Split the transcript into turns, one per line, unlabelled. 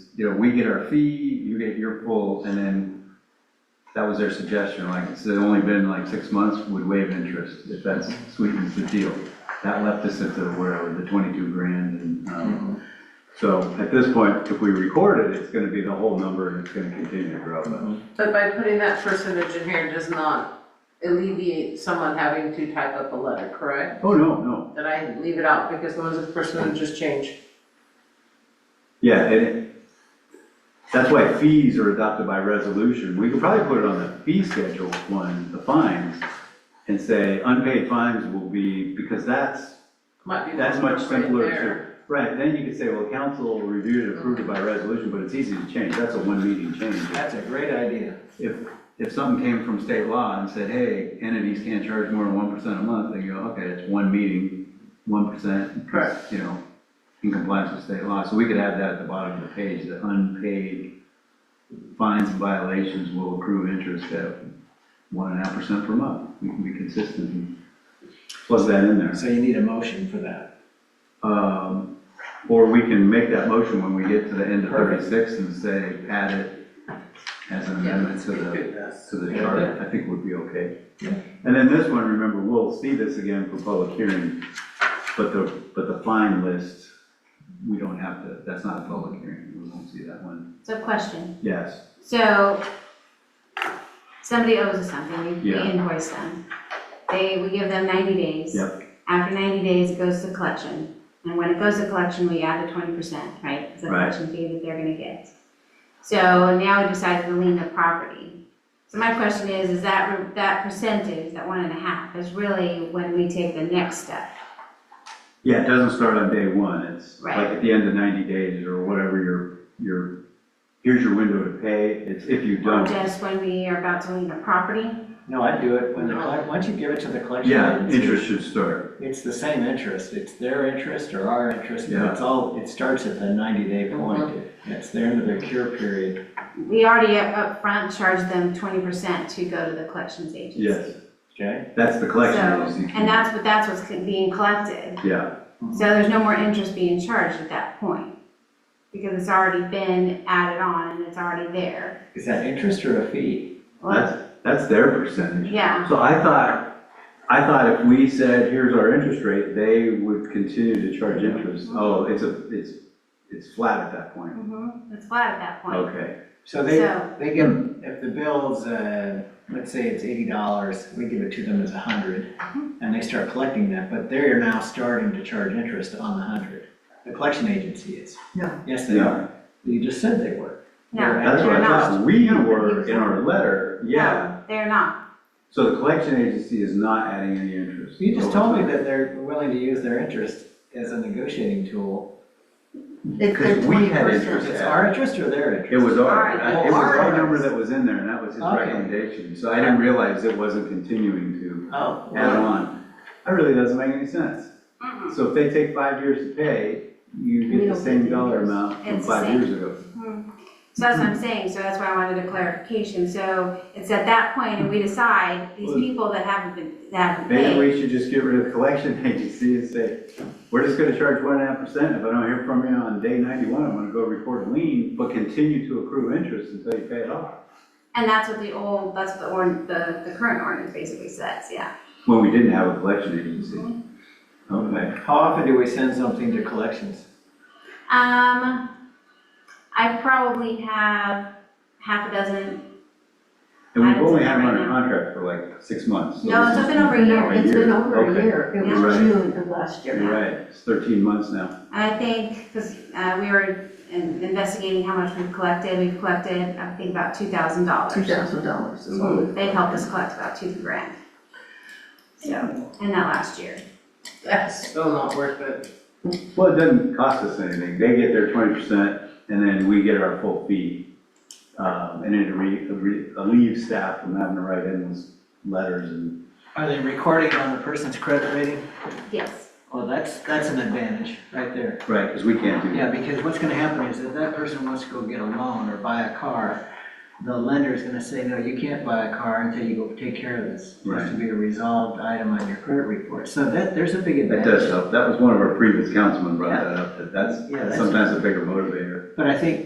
you know, we get our fee, you get your full, and then that was their suggestion, like, it's only been like six months, would waive interest, if that sweetens the deal. That left us at the, where, the twenty-two grand, and, um, so at this point, if we record it, it's gonna be the whole number, and it's gonna continue to grow, but
But by putting that percentage in here does not alleviate someone having to type up a letter, correct?
oh, no, no,
That I leave it out because those are percentages change.
Yeah, and it, that's why fees are adopted by resolution. We could probably put it on the fee schedule one, the fines, and say unpaid fines will be, because that's,
Might be.
that's much
right
simpler
there.
to. Right, then you could say, well, council reviewed and approved it by resolution, but it's easy to change. That's a one meeting change.
That's a great idea.
If, if something came from state law and said, hey, entities can't charge more than one percent a month, they go, okay, it's one meeting, one percent.
Correct.
You know, in compliance with state law, so we could have that at the bottom of the page, that unpaid fines and violations will accrue interest at one and a half percent per month. We can be consistent and plug that in there.
So you need a motion for that.
Um, Or we can make that motion when we get to the end of thirty-six and say, add it as an amendment to the to the charter, I think would be okay.
Yeah.
And then this one, remember, we'll see this again for public hearing, but the, but the fine list, we don't have to, that's not a public hearing, we won't see that one.
So question,
Yes,
so somebody owes us something, we- we
Yeah.
invoice them. They, we give them ninety days.
Yep.
After ninety days, it goes to collection. And when it goes to collection, we add the twenty percent, right? It's a
Right.
collection fee that they're gonna get. So now we decided to lien the property. So my question is, is that, re- that percentage, that one and a half, is really when we take the next step?
yeah, it doesn't start on day one, it's like
Right.
at the end of ninety days or whatever your, your, here's your window to pay, it's if you
Or
don't.
just when we are about to lien the property?
No, I'd do it when the, collect- once you give it to the collection
Yeah,
agency.
interest should start,
It's the same interest, it's their interest or our interest, but
Yeah.
it's all, it starts at the ninety day point. It's the end of their cure period.
We already up upfront charged them twenty percent to go to the collections agency.
yes,
Okay?
that's the collection
So-
agency.
And that's what, that's what's being collected.
Yeah,
So there's no more interest being charged at that point. Because it's already been added on and it's already there.
Is that interest or a fee?
Well,
that's, that's their percentage.
yeah,
So I thought, I thought if we said, here's our interest rate, they would continue to charge interest. Oh, it's a, it's, it's flat at that point.
Mhm. it's flat at that point.
Okay,
So they,
So-
they give, if the bill's, uh, let's say it's eighty dollars, we give it to them as a hundred, and they start collecting that, but they're now starting to charge interest on the hundred. The collection agency is.
Yeah.
Yes, they are.
yeah,
You just said they were.
No,
that's what I
they're not.
thought. We were in our letter, yeah.
No, They're not.
So the collection agency is not adding any interest.
You just told me that they're willing to use their interest as a negotiating tool.
Because we had interest
It's
added.
our interest or their interest?
It was our,
Alright.
it was our
Alright.
number that was in there and that was his
Okay.
recommendation. So I didn't realize it wasn't continuing to
Oh,
add
well,
on. That really doesn't make any sense.
Mm-mm.
So if they take five years to pay, you
We
get the
don't
same
get
dollar
interest.
amount from
It's the
five
same.
years ago.
So that's what I'm saying, so that's why I wanted a clarification. So it's at that point and we decide, these
Well-
people that haven't been, that haven't
Maybe
paid.
we should just get rid of the collection agency and say, we're just gonna charge one and a half percent. If I don't hear from you on day ninety-one, I'm gonna go record a lien, but continue to accrue interest until you pay it off.
And that's what the old, that's the or, the, the current ordinance basically says, yeah.
When we didn't have a collection agency. Okay.
how often do we send something to collections?
Um, I probably have half a dozen,
And
I
we've
don't
only
see
had them
that right
under
now.
contract for like six months. so
No,
this
it's
is
been over a year.
now
It's been over a
Okay.
year. It
You're
was
right.
June of last year.
You're right, it's thirteen months now.
I think, because, uh, we were in- investigating how much we've collected, we've collected, I think about two thousand dollars.
Two thousand dollars.
They've helped us collect about two grand. So, in that last year.
That's still not worth it.
Well, it doesn't cost us anything. They get their twenty percent and then we get our full fee. Um, and it re- re- relieves staff from having to write endless letters and,
Are they recording on the person's credit rating?
Yes.
Well, that's, that's an advantage right there.
right, because we can't do
Yeah,
that.
because what's gonna happen is if that person wants to go get a loan or buy a car, the lender is gonna say, no, you can't buy a car until you go take care of this. It has to be a resolved item on your credit report. So that, there's a big
That
advantage.
does help. That was one of our previous councilmen brought that up, that that's
Yeah, that's-
sometimes a bigger motivator.
But I think